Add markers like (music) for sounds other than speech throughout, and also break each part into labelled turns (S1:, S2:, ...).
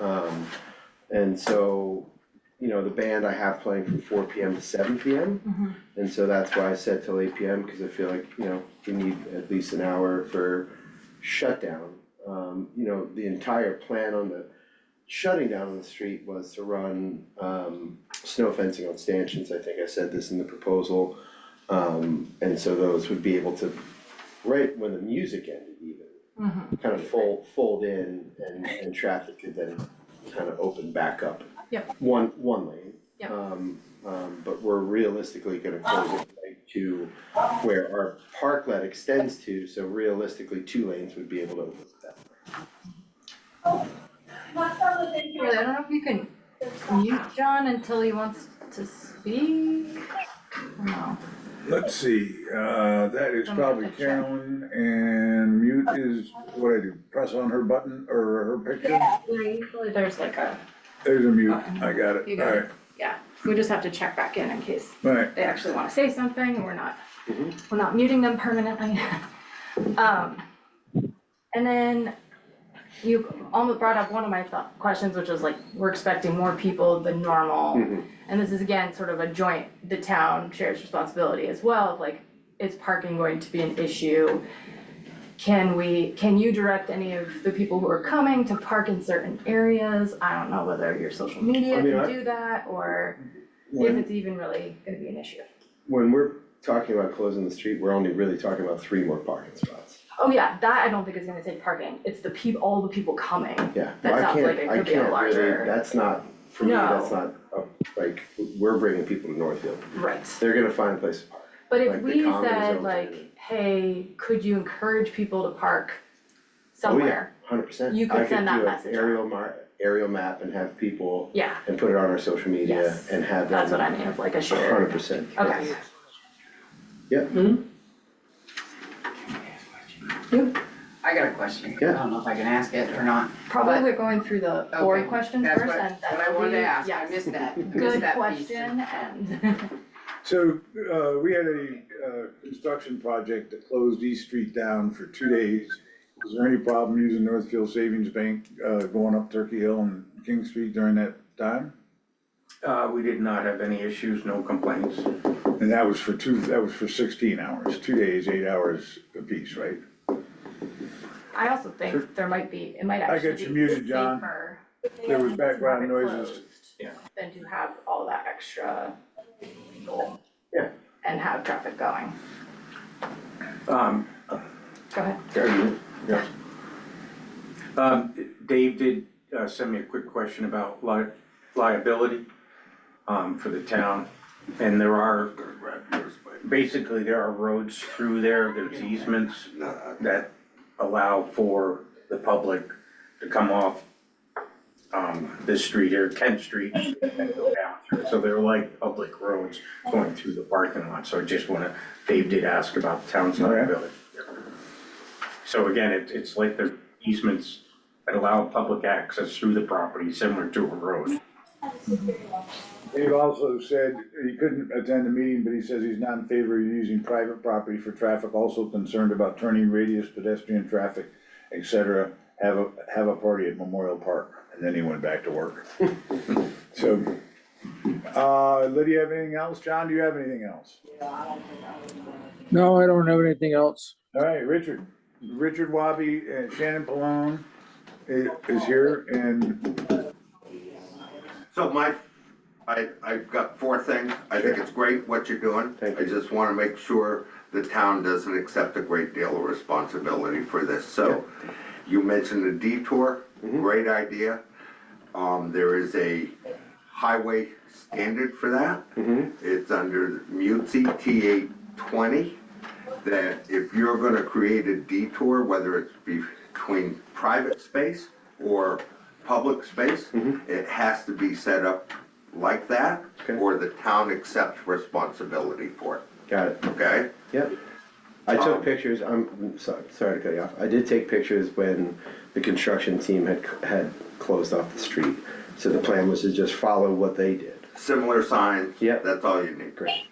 S1: Um, and so, you know, the band I have playing from four P M to seven P M.
S2: Mhm.
S1: And so that's why I said till eight P M, cause I feel like, you know, we need at least an hour for shutdown. Um, you know, the entire plan on the shutting down on the street was to run, um, snow fencing on stanchions, I think I said this in the proposal. Um, and so those would be able to, right when the music ended even,
S2: Mhm.
S1: kind of fold, fold in and, and traffic could then kind of open back up.
S2: Yep.
S1: One, one lane.
S2: Yep.
S1: Um, um, but we're realistically gonna close it like to where our parklet extends to, so realistically, two lanes would be able to open that.
S2: Really, I don't know if you can mute John until he wants to speak. I don't know.
S3: Let's see, uh, that is
S2: I'm
S3: probably
S2: gonna check.
S3: Carolyn, and mute is, what I do, press on her button or her picture?
S2: Yeah, usually there's like a,
S3: There's a mute, I got
S2: You
S3: it,
S2: got
S3: alright,
S2: we just have to check back in in case
S3: alright,
S2: they actually wanna say something, we're not,
S1: Mhm.
S2: we're not muting them permanently. (laughs) Um, and then you almost brought up one of my thought, questions, which was like, we're expecting more people than normal.
S1: Mm-hmm.
S2: And this is again, sort of a joint, the town shares responsibility as well, of like, is parking going to be an issue? Can we, can you direct any of the people who are coming to park in certain areas? I don't know whether your social media
S1: I mean,
S2: can
S1: I-
S2: do that, or if
S1: When,
S2: it's even really gonna be an issue.
S1: when we're talking about closing the street, we're only really talking about three more parking spots.
S2: Oh yeah, that I don't think is gonna take parking, it's the peop, all the people coming.
S1: Yeah,
S2: That
S1: well, I
S2: sounds like
S1: can't,
S2: it
S1: I
S2: could be a
S1: can't
S2: larger-
S1: really, that's not, for me,
S2: No.
S1: that's not, uh, like, we're bringing people to Northfield.
S2: Right.
S1: They're gonna find a place to park.
S2: But if
S1: Like, the
S2: we
S1: comedy
S2: said
S1: zones
S2: like,
S1: and-
S2: hey, could you encourage people to park somewhere?
S1: Hundred percent.
S2: You could send that message
S1: I could do
S2: out.
S1: an aerial mar- aerial map and have people
S2: Yeah,
S1: and put it on our social media
S2: Yes.
S1: and have them.
S2: that's what I mean, of like a
S1: Hundred
S2: shared,
S1: percent.
S2: okay.
S4: I got a question.
S1: Yeah.
S4: I don't know if I can ask it or not.
S2: Probably we're going through the board
S4: Okay,
S2: questions
S4: That's
S2: first
S4: what,
S2: and
S4: what I wanted to ask. I missed that. I missed that piece.
S2: Good question and (laughs)
S3: so, uh, we had a, uh, construction project that closed East Street down for two days. Was there any problem using Northfield Savings Bank, uh, going up Turkey Hill and King Street during that time?
S5: Uh, we did not have any issues, no complaints.
S3: And that was for two, that was for sixteen hours, two days, eight hours apiece, right?
S2: I also think there might be, it might
S3: I
S2: actually
S3: got you
S2: be
S3: muted, John.
S2: safer
S3: There was
S2: to have
S3: background
S2: it
S3: noises.
S2: closed
S5: Yeah.
S2: Than to have all that extra people.
S1: Yeah.
S2: And have traffic going.
S5: Um,
S2: Go ahead.
S5: there you- yeah. Um, Dave did, uh, send me a quick question about li- liability, um, for the town. And there are, basically, there are roads through there, there's easements that allow for the public to come off, um, this street or Kent Street and go down through. So they're like public roads going through the parking lot, so I just wanna, Dave did ask about the town's
S3: Okay.
S5: liability. So again, it, it's like the easements that allow public access through the property similar to a road.
S3: Dave also said he couldn't attend the meeting, but he says he's not in favor of using private property for traffic, also concerned about turning radius, pedestrian traffic, et cetera. Have a, have a party at Memorial Park, and then he went back to work. So, uh, Lydia, have anything else? John, do you have anything else?
S6: No, I don't have anything else.
S3: All right, Richard, Richard Wabi and Shannon Pallone i- is here, and
S7: So my, I, I've got four things. I think it's great what you're doing.
S1: Thank
S7: I
S1: you.
S7: just wanna make sure the town doesn't accept a great deal of responsibility for this. So you mentioned the detour,
S1: Mm-hmm.
S7: great idea. Um, there is a highway standard for that.
S1: Mm-hmm.
S7: It's under MUTC TA twenty, that if you're gonna create a detour, whether it's between private space or public space, it has to be set up like that,
S1: Mm-hmm. Okay.
S7: or the town accepts responsibility for it,
S1: Got it,
S7: okay?
S1: yep. I took
S7: Um,
S1: pictures, I'm, I'm sorry, sorry to cut you off. I did take pictures when the construction team had, c- had closed off the street. So the plan was to just follow what they did.
S7: Similar signs,
S1: Yep.
S7: that's all you need.
S1: Great.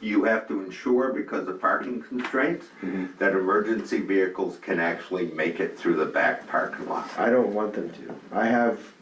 S7: You have to ensure because of parking constraints,
S1: Mm-hmm.
S7: that emergency vehicles can actually make it through the back parking lot.
S1: I don't want them to. I have